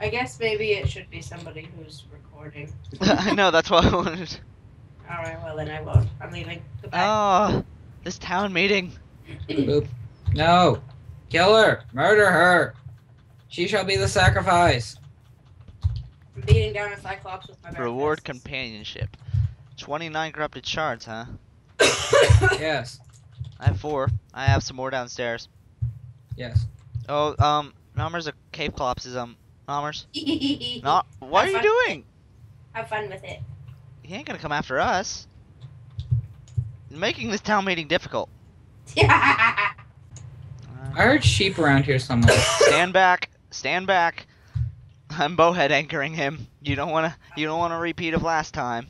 I guess maybe it should be somebody who's recording. I know, that's what I wanted. Alright, well then I won't. I'm leaving. Goodbye. Oh, this town meeting. Boop. No. Kill her. Murder her. She shall be the sacrifice. I'm beating down a cyclops with my back Reward fists. companionship. 29 corrupted shards, huh? Yes. I have four. I have some more downstairs. Yes. Oh, um, Nommers, a cave collapse is, um, Nommers. Not, what are you Have doing? Have fun with it. He ain't gonna come after us. Making this town meeting difficult. I heard sheep around here somewhere. Stand back. Stand back. I'm bowhead anchoring him. You don't wanna you don't wanna repeat of last time.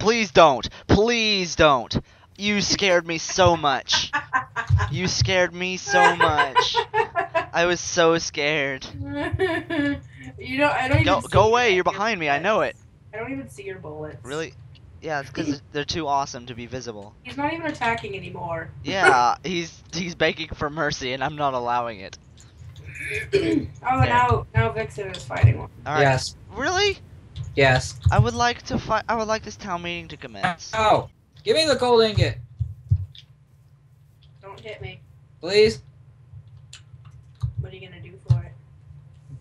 Please don't. Please don't. You scared me so much. You scared me so much. I was so scared. you don't. I don't Go even see go away, your- you're behind me, I know it. I don't even see your bullets. Really? Yeah, it's because they're too awesome to be visible. He's not even attacking anymore. Yeah, he's he's begging for mercy and I'm not allowing it. oh, now now Vixen is fighting one. Alright. Yes. Really? Yes. I would like to fi- I would like this town meeting to commence. Oh. Give me the gold ingot, Don't hit me. please. What are you gonna do for it?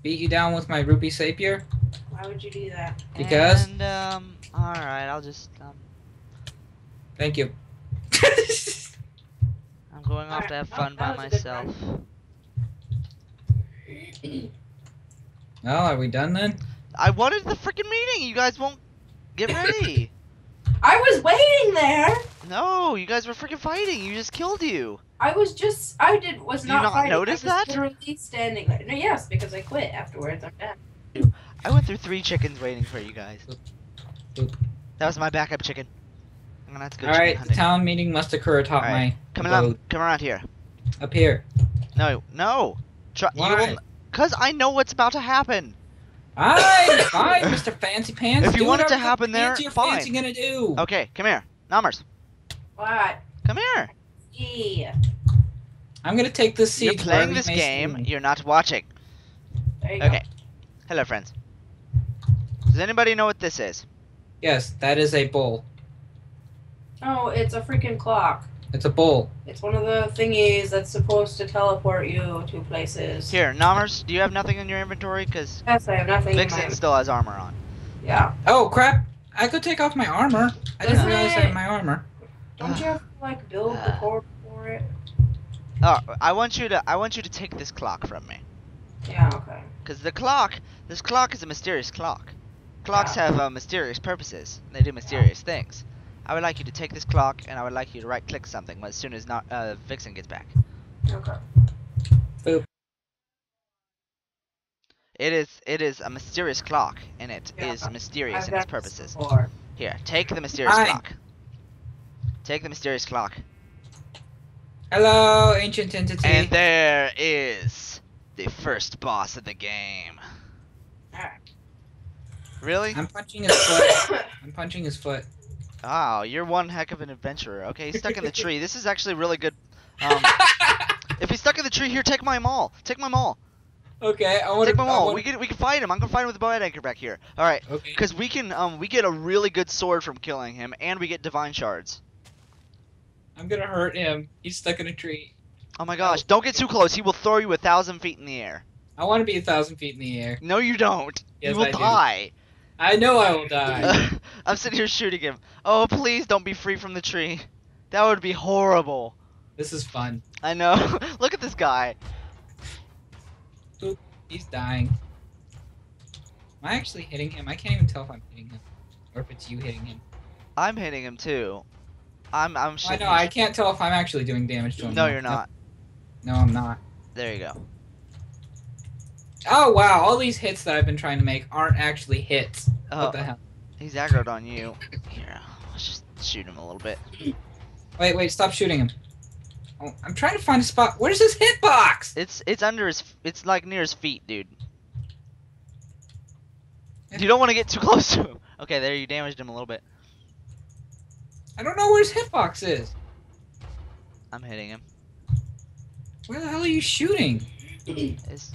Beat you down with my rupee sapier. Why would you do that? Because- And um, all right, I'll just um, Thank you. I'm going off to have fun by That was a good myself. well, are we done then? I wanted the freaking meeting. You guys won't get ready. I was waiting there. no, you guys were freaking fighting. You just killed you. I was just. I did. Was You not. not fighting. I notice was that? Literally standing there. No, yes, because I quit afterwards. I'm done. I went through three chickens waiting for you guys. Oop. That was my backup chicken. I'm gonna have to go All chicken right. The hunting. town meeting must occur atop All right. my come around, abode. come around here. up here. No, no. Try, you Why? will, Cause I know what's about to happen. I'm fine, Mr. Fancy Pants. If you Do want it to whatever happen there, fancy you're fine. Fancy gonna do. Okay, come here, Namers. What? Come here. Yeah. I'm gonna take this seat. You're playing wherever this you may see game. me. You're not watching. There you Okay. Hello, friends. Does anybody know what this is? Yes, that is a bull. go. No, Oh, it's a freaking clock. It's a bull. It's one of the thingies that's supposed to teleport you to places. Here, Namers, do you have nothing in your inventory? Because Yes, I have nothing. in Vixen my- still has armor on. Yeah. Oh crap! I could take off my armor. I didn't Doesn't realize I it- had my armor. Don't you have to like build the Ah. core for it? Oh, I want you to I want you to take this clock from me. Yeah. Okay. Because the clock, this clock is a mysterious clock. Clocks Yeah. have uh, mysterious purposes. They do mysterious things. I would like you to take this clock, and I would like you to right-click something as soon as not, uh, Vixen gets back. Okay. It is it is a mysterious clock, and it is Yeah, mysterious I've in its done this purposes. before. Here, take the mysterious Fine. clock. Take the mysterious clock. Hello, ancient entity. And there is the first boss of the game. Alright. Really? I'm punching his foot. I'm punching his foot. Wow, Oh, you're one heck of an adventurer. Okay, he's stuck in the tree. This is actually really good. Um, if he's stuck in the tree, here, take my maul. Take my maul. okay, I want Take to. my maul. We can we can fight him. I'm gonna fight him with the bow and anchor back here. All right, Okay. because we can um we get a really good sword from killing him, and we get divine shards. I'm gonna hurt him. He's stuck in a tree. Oh my gosh! Don't get too close. He will throw you a thousand feet in the air. I want to be a thousand feet in the air. No, you don't. Yes, you will I do. die. I know I will die. I'm sitting here shooting him. Oh, please don't be free from the tree. That would be horrible. this is fun. I know. Look at this guy. He's dying. Am I actually hitting him? I can't even tell if I'm hitting him, or if it's you hitting him. I'm hitting him too. I'm I'm I shooting. know. I can't tell if I'm actually doing damage to him. No, you're not. No, I'm not. There you go. Oh wow! All these hits that I've been trying to make aren't actually hits. Oh, What the hell? he's aggroed on you. Here, let's just shoot him a little bit. Wait, wait! Stop shooting him. Oh, I'm trying to find a spot. Where's his hitbox? It's it's under his. f- It's like near his feet, dude. You don't want to get too close to him. Okay, there you damaged him a little bit. I don't know where his hitbox is. I'm hitting him. Where the hell are you shooting? It's